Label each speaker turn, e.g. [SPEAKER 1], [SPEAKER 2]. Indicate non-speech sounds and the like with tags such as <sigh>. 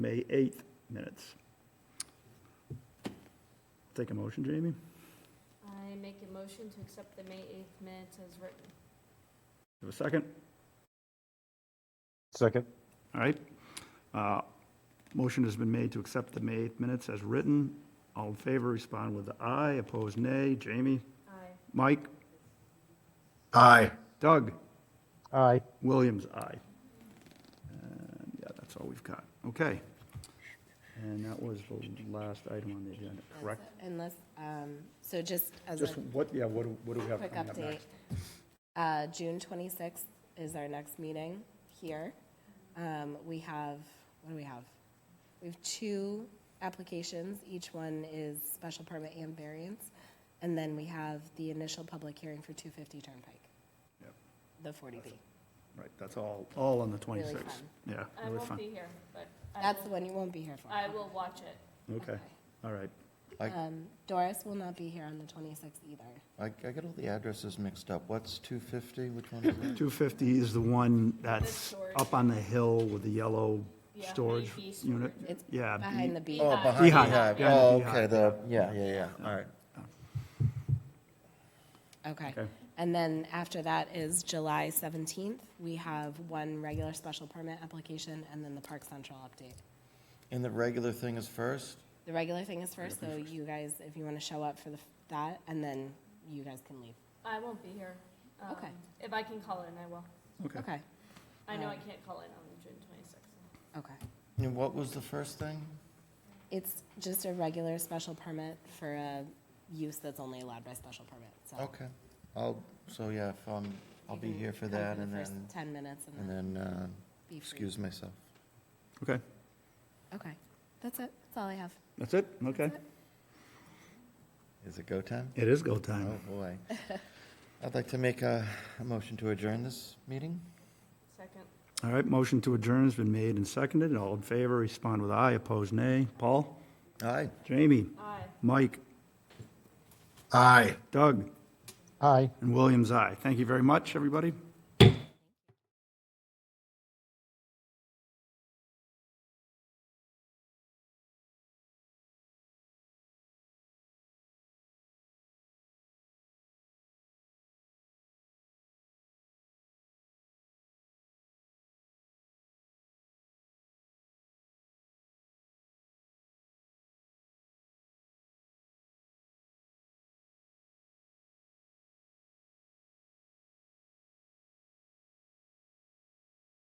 [SPEAKER 1] May 8th minutes. Take a motion, Jamie?
[SPEAKER 2] I make a motion to accept the May 8th minutes as written.
[SPEAKER 1] Have a second?
[SPEAKER 3] Second.
[SPEAKER 1] All right. Uh, Motion has been made to accept the May 8th minutes as written. All in favor, respond with aye. Opposed, nay. Jamie?
[SPEAKER 2] Aye.
[SPEAKER 1] Mike?
[SPEAKER 3] Aye.
[SPEAKER 1] Doug?
[SPEAKER 3] Aye.
[SPEAKER 1] Williams, aye. And, Yeah, that's all we've got. Okay. And that was the last item on the agenda, correct?
[SPEAKER 4] Unless, um, so just as
[SPEAKER 1] Just
[SPEAKER 4] a
[SPEAKER 1] what, yeah, what do what do we have
[SPEAKER 4] quick
[SPEAKER 1] coming up
[SPEAKER 4] update,
[SPEAKER 1] next?
[SPEAKER 4] uh, June 26th is our next meeting here. Um, We have, what do we have? We have two applications, each one is special permit and variance. And then we have the initial public hearing for 250 Turnpike,
[SPEAKER 1] Yep.
[SPEAKER 4] the 40B.
[SPEAKER 1] Right, that's all, all on the 26th.
[SPEAKER 4] Really fun.
[SPEAKER 1] Yeah,
[SPEAKER 2] I
[SPEAKER 1] really
[SPEAKER 2] won't
[SPEAKER 1] fun.
[SPEAKER 2] be here, but I
[SPEAKER 4] That's the
[SPEAKER 2] will,
[SPEAKER 4] one you won't be here for.
[SPEAKER 2] I will watch it.
[SPEAKER 1] Okay, all right.
[SPEAKER 5] I,
[SPEAKER 4] Um, Doris will not be here on the 26th either.
[SPEAKER 5] I, I get all the addresses mixed up. What's 250? Which one is that?
[SPEAKER 1] 250 is the one that's
[SPEAKER 2] storage.
[SPEAKER 1] up on the hill with the yellow
[SPEAKER 2] Yeah,
[SPEAKER 1] storage
[SPEAKER 2] B storage
[SPEAKER 1] unit.
[SPEAKER 2] room.
[SPEAKER 4] It's
[SPEAKER 1] Yeah. B-
[SPEAKER 4] behind the B.
[SPEAKER 5] <laughs> Oh,
[SPEAKER 2] Beehive.
[SPEAKER 5] behind
[SPEAKER 1] Beehive,
[SPEAKER 5] Beehive.
[SPEAKER 1] behind the
[SPEAKER 5] Oh,
[SPEAKER 1] Beehive,
[SPEAKER 5] okay, the, yeah, yeah, yeah, all right.
[SPEAKER 4] Okay.
[SPEAKER 1] Okay.
[SPEAKER 4] And then after that is July 17th. We have one regular special permit application and then the Park Central update.
[SPEAKER 5] And the regular thing is first?
[SPEAKER 4] The regular thing is first, so you guys, if you want to show up for the, that, and then you guys can leave.
[SPEAKER 2] I won't be here. Um,
[SPEAKER 4] Okay.
[SPEAKER 2] If I can call in, I will.
[SPEAKER 1] Okay.
[SPEAKER 4] Okay,
[SPEAKER 2] I know I
[SPEAKER 4] Um,
[SPEAKER 2] can't call in on the June 26th.
[SPEAKER 4] okay.
[SPEAKER 5] And what was the first thing?
[SPEAKER 4] It's just a regular special permit for a use that's only allowed by special permit, so.
[SPEAKER 5] Okay, I'll, so yeah, if I'm, I'll be
[SPEAKER 4] you can
[SPEAKER 5] here for
[SPEAKER 4] come
[SPEAKER 5] that
[SPEAKER 4] the
[SPEAKER 5] and
[SPEAKER 4] first
[SPEAKER 5] then,
[SPEAKER 4] 10 minutes and
[SPEAKER 5] and
[SPEAKER 4] then
[SPEAKER 5] then, uh,
[SPEAKER 4] be free.
[SPEAKER 5] excuse myself.
[SPEAKER 1] Okay,
[SPEAKER 4] Okay, that's it, that's all I have.
[SPEAKER 1] that's it? Okay.
[SPEAKER 5] Is it go time?
[SPEAKER 1] It is go
[SPEAKER 5] Oh,
[SPEAKER 1] time.
[SPEAKER 5] boy. I'd like to make a, a motion to adjourn this meeting.
[SPEAKER 2] Second.
[SPEAKER 1] All right, motion to adjourn has been made and seconded. All in favor, respond with aye. Opposed, nay. Paul?
[SPEAKER 5] Aye.
[SPEAKER 1] Jamie?
[SPEAKER 2] Aye.
[SPEAKER 1] Mike?
[SPEAKER 3] Aye.
[SPEAKER 1] Doug?
[SPEAKER 3] Aye.
[SPEAKER 1] And Williams, aye. Thank you very much, everybody.